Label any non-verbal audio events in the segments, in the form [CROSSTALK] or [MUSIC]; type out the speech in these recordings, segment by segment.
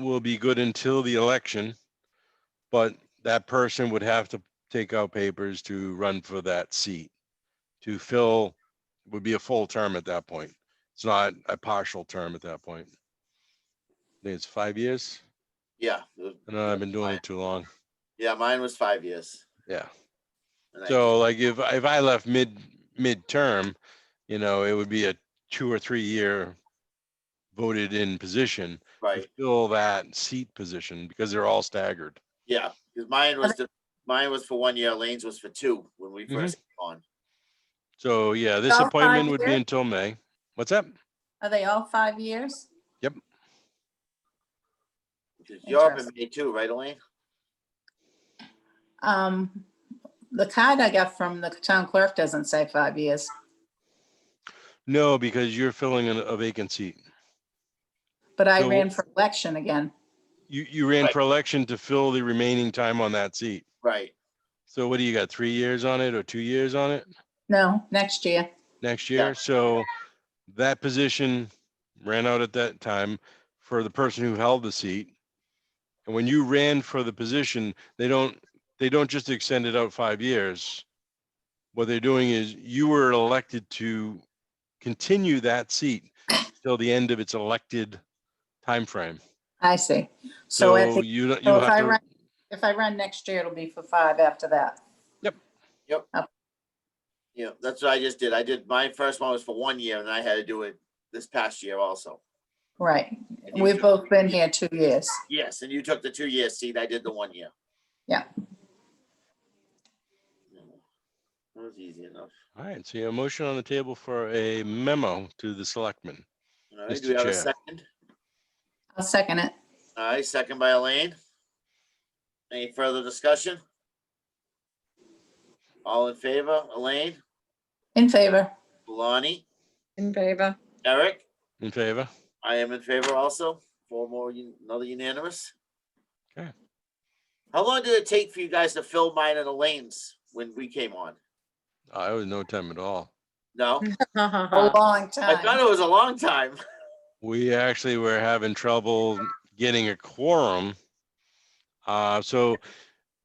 will be good until the election. But that person would have to take out papers to run for that seat. To fill would be a full term at that point. It's not a partial term at that point. I think it's five years. Yeah, the- I know I've been doing it too long. yeah, mine was five years. Yeah. and I- So like if, if I left mid, midterm, you know, it would be a two or three year voted in position. to Right, Fill that seat position because they're all staggered. yeah, because mine was, the- mine was for one year, Lane's was for two when we Mhm. first came on. So yeah, this All five appointment would be years? until May. What's that? Are they all five years? Because You're up in Interesting. May too, right, Elaine? Um, the card I got from the town clerk doesn't say five years. No, because you're filling in a vacant seat. But I So- ran for election again. You, you ran Right. for election to fill the remaining time on that seat. Right, So what do you got? Three years on it or two years on it No, next year. next Yeah. year? So that position ran out at that time for the person who held the seat. And when you ran for the position, they don't, they don't just extend it out five years. What they're doing is you were elected to continue that seat till the end of its elected timeframe. I see. So So if, you, don't- you so if I have to. run, if I run next year, it'll be for five after that. yeah, that's what I just did. I did, my first one was for one year and I had to do it this past year also. Right. And you We've took- both been here two years. Yes, and you took the two year seat. I did the one year. Yeah. That was easy enough. All right, so you have a motion on the table for a memo to the selectmen. All right, Mr. do we have a Chair. second? I'll second it. All right, second by Elaine. Any further discussion? All in favor, Elaine, In favor. Lonnie, In favor. [LAUGHS] Eric? In favor? I am in favor also. Four more, un- another unanimous. Okay. How long did it take for you guys to fill mine and Elaine's when we came on? I was no time at all. No, A Well, long I thought time. it was a long time. [LAUGHS] We actually were having trouble getting a quorum. Uh, so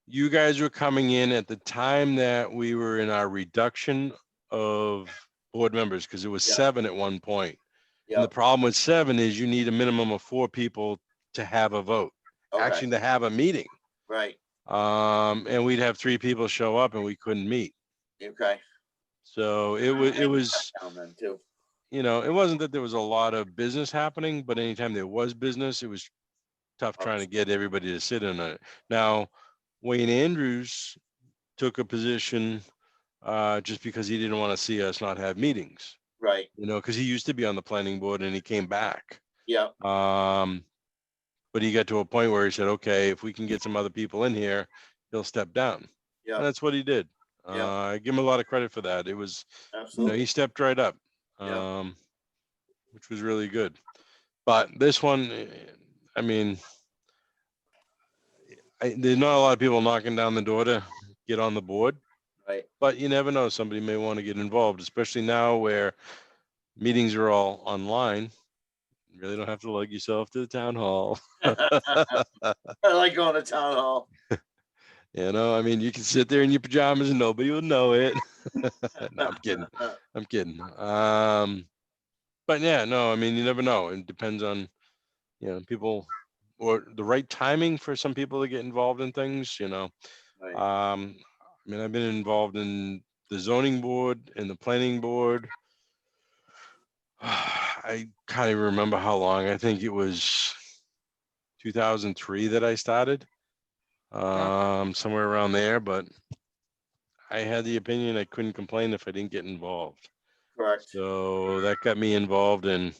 you guys were coming in at the time that we were in our reduction of board members, because it was Yeah. seven at one point. And the Yep, problem with seven is you need a minimum of four people to have a vote, okay, actually to have a meeting. Right, Um, and we'd have three people show up and we couldn't meet. okay. So it was, it was, Down then too. you know, it wasn't that there was a lot of business happening, but anytime there was business, it was tough Oh, trying to get everybody to sit in on it. Now, Wayne Andrews took a position uh, just because he didn't want to see us not have meetings, Right, you know, because he used to be on the planning board and he came back. yeah, Um, but he got to a point where he said, okay, if we can get some other people in here, he'll step down. yeah, And that's what he did. Yeah. Uh, I give him a lot of credit for that. It was, you know, absolutely. he stepped right up. Yeah. Um, which was really good. But this one, eh, I mean, I, there's not a lot of people knocking down the door to get on the board, Right, [LAUGHS] but you never know. Somebody may want to get involved, especially now where meetings are all online. You Really don't have to lug yourself to the town hall. [LAUGHS] I like going to town hall. You know, I mean, you can sit there in your pajamas and nobody will know it. [LAUGHS] no, I'm kidding. I'm kidding. Um, but yeah, no, I mean, you never know. It depends on, you know, people or the right timing for some people to get involved in things, you know. [LAUGHS] Right, Um, I mean, I've been involved in the zoning board and the planning board. [SIGHS] I can't even remember how long. I think it was 2003 that I started. Um, somewhere around there, but I had the opinion I couldn't complain if I didn't get involved. Correct, So that got me involved and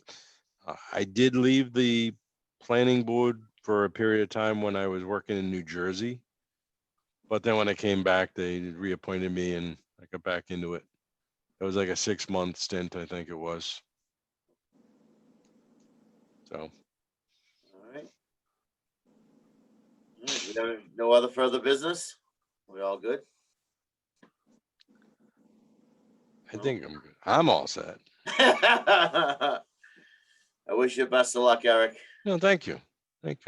uh, I did leave the planning board for a period of time when I was working in New Jersey. But then when I came back, they reappointed me and I got back into it. It was like a six month stint, I think it was. So, all right. All right, we don't- No other further business? We all good? [LAUGHS] I Well. think I'm, good. I'm all set. I wish you best of luck, Eric. No, thank you. Thank you.